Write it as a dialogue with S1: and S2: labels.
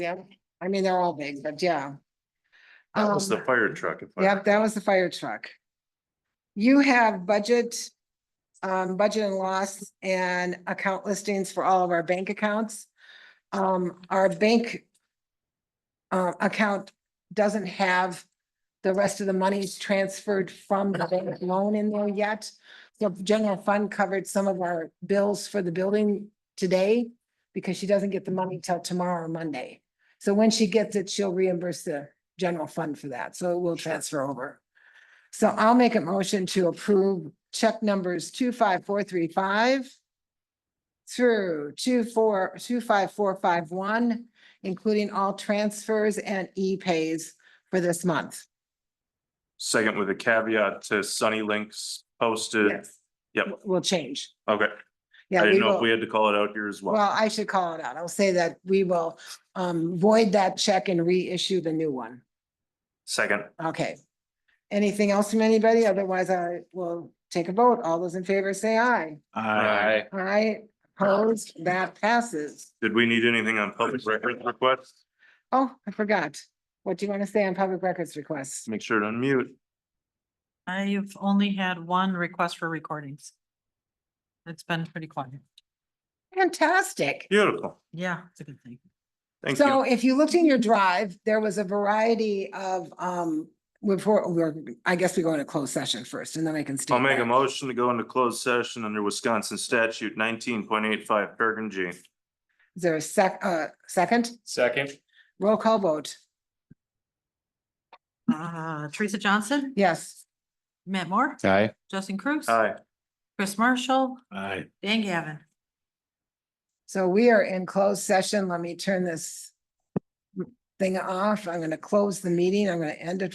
S1: Yeah, I mean, they're all big, but yeah.
S2: That was the
S1: Um,
S2: fire truck. if I-
S1: Yep, that was the fire truck. You have budget, um, budget and loss and account listings for all of our bank accounts. Um, our bank uh, account doesn't have the rest of the monies transferred from the bank loan in there yet. The general fund covered some of our bills for the building today because she doesn't get the money till tomorrow or Monday. So when she gets it, she'll reimburse the general fund for that, so it will transfer over. So I'll make a motion to approve check numbers two five four three five through two four, two five four five one, including all transfers and e-pays for this month.
S2: Second with a caveat to Sunny Links posted.
S1: Yes.
S2: Uh, Yep.
S1: Will change.
S2: Okay, I
S1: Yeah, we
S2: didn't know if
S1: will.
S2: we had to call it out here as well.
S1: Well, I should call it out. I'll say that we will um void that check and reissue the new one.
S2: Second,
S1: Okay. Anything else from anybody? Otherwise, I will take a vote. All those in favor say aye.
S2: Aye.
S1: Aye, opposed, that passes.
S2: did we need anything on public records requests?
S1: Oh, I forgot. What do you want to say on public records requests?
S2: Make sure to unmute.
S3: I've only had one request for recordings. It's been pretty quiet.
S1: Fantastic.
S2: Beautiful.
S3: Yeah, it's a good thing.
S2: Thank
S1: So
S2: you.
S1: if you looked in your drive, there was a variety of, um, before, we're, I guess we go into closed session first and then I can.
S2: I'll
S1: state
S2: make a
S1: that.
S2: motion to go into closed session under Wisconsin statute nineteen point eight five, Bergen G.
S1: Is there a sec, uh, second?
S2: Second.
S1: Roll call vote.
S3: Uh, Teresa Johnson,
S1: Yes.
S3: Matt Moore,
S4: Aye.
S3: Justin Cruz.
S2: Aye.
S3: Chris Marshall,
S4: Aye.
S3: Dan Gavin.
S1: So we are in closed session. Let me turn this thing off. I'm going to close the meeting. I'm going to end it